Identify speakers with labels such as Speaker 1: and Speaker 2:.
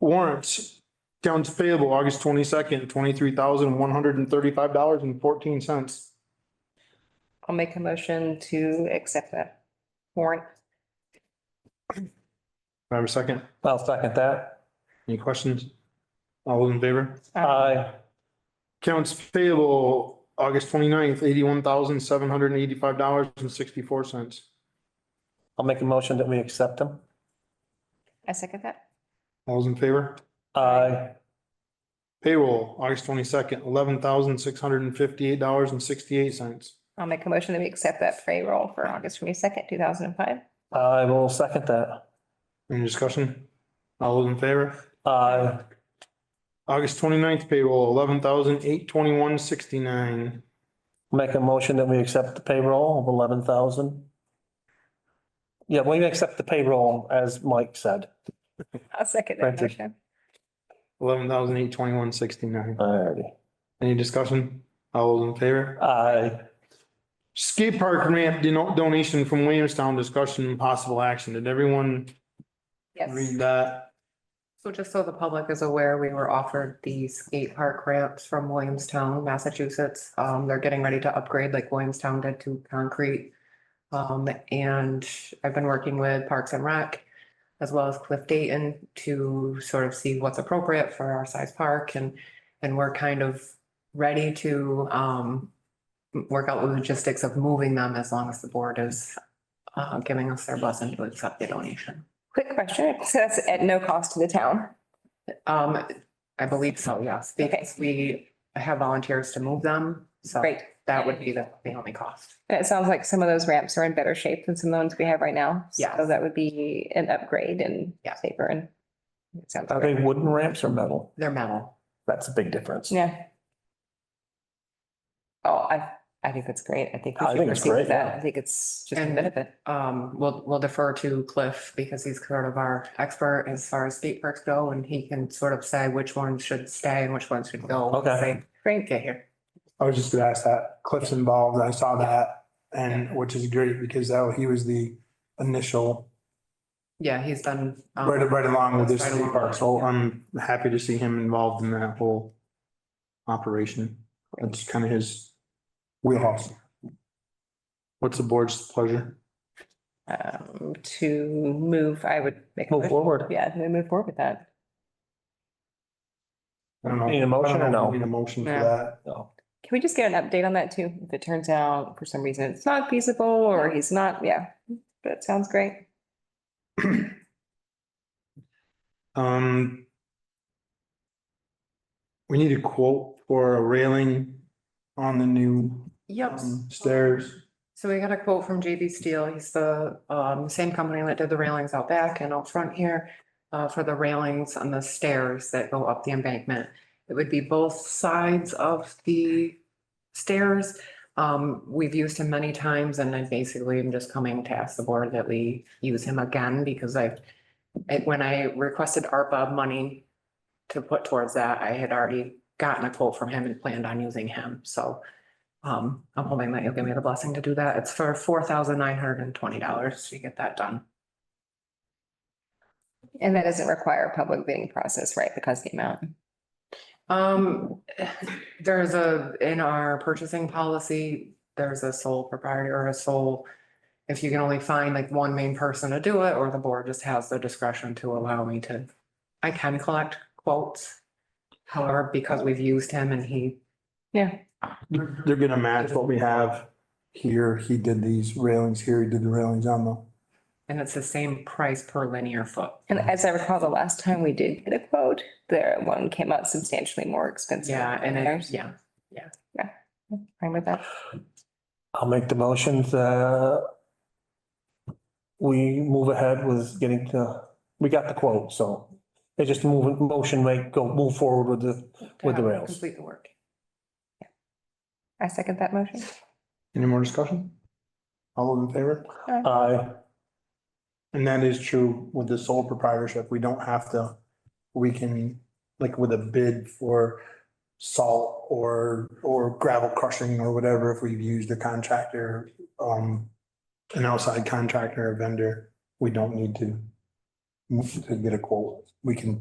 Speaker 1: Warrants, accounts payable, August twenty-second, twenty-three thousand, one hundred and thirty-five dollars and fourteen cents.
Speaker 2: I'll make a motion to accept that warrant.
Speaker 1: I have a second?
Speaker 3: I'll second that.
Speaker 1: Any questions? All those in favor?
Speaker 2: Um,
Speaker 3: Aye.
Speaker 1: Accounts payable, August twenty-ninth, eighty-one thousand, seven hundred and eighty-five dollars and sixty-four cents.
Speaker 3: I'll make a motion that we accept them.
Speaker 2: I second that.
Speaker 1: All those in favor?
Speaker 3: Aye.
Speaker 1: Payroll, August twenty-second, eleven thousand, six hundred and fifty-eight dollars and sixty-eight cents.
Speaker 2: I'll make a motion that we accept that payroll for August twenty-second, two thousand and five.
Speaker 3: I will second that.
Speaker 1: Any discussion? All those in favor?
Speaker 3: Aye.
Speaker 1: August 29th payroll, eleven thousand eight twenty-one sixty-nine.
Speaker 3: Make a motion that we accept the payroll of eleven thousand. Yeah, we accept the payroll, as Mike said.
Speaker 2: I'll second that
Speaker 3: Granted.
Speaker 2: motion.
Speaker 1: Eleven thousand eight twenty-one sixty-nine.
Speaker 3: Alrighty.
Speaker 1: Any discussion? All those in favor?
Speaker 3: Aye.
Speaker 1: Skate park ramp dono- donation from Williamstown, discussion and possible action. Did everyone
Speaker 2: Yes.
Speaker 1: read that?
Speaker 4: So just so the public is aware, we were offered the skate park ramps from Williamstown, Massachusetts. Um, they're getting ready to upgrade like Williamstown did to concrete. Um, and I've been working with Parks and Rec as well as Cliff Dayton to sort of see what's appropriate for our size park and, and we're kind of ready to, um, work out the logistics of moving them as long as the board is, uh, giving us their blessing to accept the donation.
Speaker 2: Quick question. So that's at no cost to the town.
Speaker 4: Um, I believe so, yes,
Speaker 2: Okay.
Speaker 4: because we have volunteers to move them, so
Speaker 2: Great.
Speaker 4: that would be the, the only cost.
Speaker 2: And it sounds like some of those ramps are in better shape than some of the ones we have right now. So
Speaker 4: Yes.
Speaker 2: that would be an upgrade and
Speaker 4: Yeah.
Speaker 2: safer and it sounds
Speaker 3: Are they
Speaker 2: great.
Speaker 3: wooden ramps or metal?
Speaker 4: They're metal.
Speaker 3: That's a big difference.
Speaker 2: Yeah. Oh, I, I think that's great. I think we
Speaker 3: I
Speaker 2: should
Speaker 3: think it's
Speaker 2: proceed with
Speaker 3: great, yeah.
Speaker 2: that. I think it's just a
Speaker 4: And-
Speaker 2: benefit.
Speaker 4: Um, we'll, we'll defer to Cliff because he's sort of our expert as far as skate parks go and he can sort of say which ones should stay and which ones should go. once
Speaker 3: Okay.
Speaker 4: they
Speaker 2: Great.
Speaker 4: Get here.
Speaker 5: I was just gonna ask that. Cliff's involved. I saw that and which is great because that he was the initial
Speaker 4: Yeah, he's done. um,
Speaker 1: Right, right along with this
Speaker 4: Right
Speaker 1: skate
Speaker 4: along.
Speaker 1: park. So I'm happy to see him involved in that whole operation. That's kind of his wheelhouse. What's the board's pleasure?
Speaker 2: Um, to move, I would make. a
Speaker 3: Move
Speaker 2: motion.
Speaker 3: forward.
Speaker 2: Yeah, to move forward with that.
Speaker 1: I don't know.
Speaker 3: Need a motion or no?
Speaker 1: Need a motion for
Speaker 2: No.
Speaker 1: that.
Speaker 3: No.
Speaker 2: Can we just get an update on that too? If it turns out for some reason it's not feasible or he's not, yeah, that sounds great.
Speaker 1: Um. We need a quote for a railing on the new
Speaker 4: Yep.
Speaker 1: um, stairs.
Speaker 4: So we got a quote from JB Steel. He's the um same company that did the railings out back and out front here. Uh, for the railings on the stairs that go up the embankment. It would be both sides of the stairs. Um, we've used him many times and I basically am just coming to ask the board that we use him again because I've. it- when I requested ARPA money to put towards that, I had already gotten a quote from him and planned on using him, so. Um, I'm hoping that you'll give me the blessing to do that. It's for four thousand nine hundred and twenty dollars to get that done.
Speaker 2: And that doesn't require a public bidding process, right? Because the amount.
Speaker 4: Um, there's a, in our purchasing policy, there's a sole proprietor or a sole. If you can only find like one main person to do it, or the board just has the discretion to allow me to, I can collect quotes. However, because we've used him and he
Speaker 2: Yeah,
Speaker 1: They're they're gonna match what we have.
Speaker 5: Here, he did these railings here, he did the railings on the.
Speaker 4: And it's the same price per linear foot.
Speaker 2: and as I recall, the last time we did get a quote, their one came out substantially more expensive.
Speaker 4: Yeah, and
Speaker 2: than theirs.
Speaker 4: it, yeah,
Speaker 2: Fine with that.
Speaker 3: I'll make the motion that we move ahead with getting to, we got the quote, so they just move, motion make, go, move forward with the, with the rails.
Speaker 4: complete the work.
Speaker 2: I second that motion.
Speaker 1: Any more discussion?
Speaker 5: All those in favor?
Speaker 3: Aye.
Speaker 1: And that is true with the sole proprietorship. We don't have to, we can, like with a bid for
Speaker 5: Salt or, or gravel crushing or whatever, if we've used a contractor, um, an outside contractor or vendor, we don't need to to get a quote. We can